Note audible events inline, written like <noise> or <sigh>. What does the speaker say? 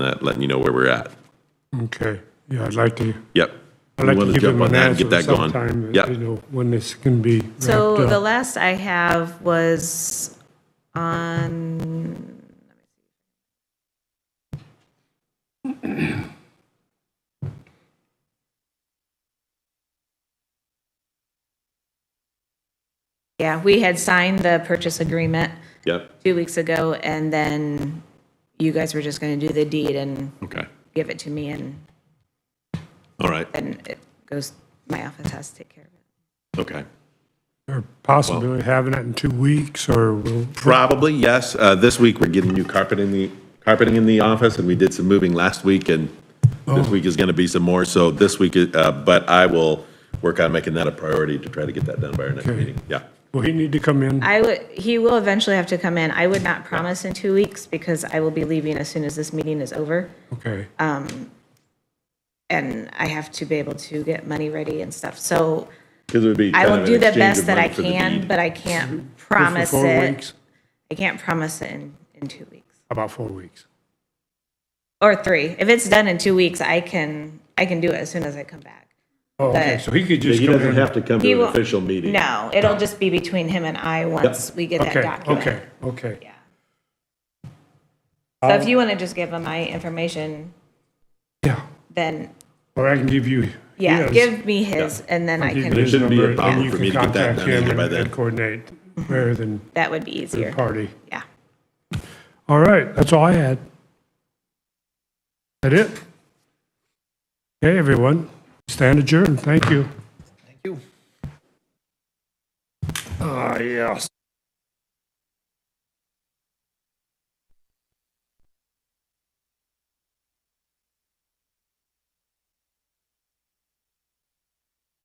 that, letting you know where we're at. Okay, yeah, I'd like to, Yep. I'd like We to wanna give jump them on an that and answer Get that going. sometime, Yep. you know, when this can be wrapped So the up. last I have was on. <clears throat> Yeah, we had signed the purchase agreement Yep. two weeks ago, and then you guys were just going to do the deed and Okay. give it to me, and All right. then it goes, my office has to take care of it. Okay. Or possibly having it in two weeks, or we'll, Probably, yes. Uh, this week, we're getting new carpet in the, carpeting in the office, and we did some moving last week, and Oh. this week is gonna be some more, so this week, is- uh, but I will work on making that a priority to try to get that done by our next Okay. meeting. Yeah. will he need to come in? I would, he will eventually have to come in. I would not promise in two weeks because I will be leaving as soon as this meeting is over. Okay, And I have to be able to get money ready and stuff. So Because it would be. I kind will of do an the exchange best of that I money for the can, deed. but I can't Just for promise four it. weeks? I can't promise it in, in two weeks About four weeks. or three. If it's done in two weeks, I can, I can do it as soon as I come back. Oh, okay, But- so he could Yeah, just He come doesn't in. have to come He to an won't- official meeting. No, it'll just be between him and I once we get that Okay, document. okay, okay. Yeah. So if you want to just give him my information, Yeah, then or I can give you Yeah, his. give me his, and then I I'll give can, you It his shouldn't be a number, and problem you for can me to get that contact done him either by and- then. and Coordinate, rather than that would be third easier. party. Yeah. All right, that's all I had. That it? Hey, everyone, stand adjourned, thank you. Thank you. Ah, yes.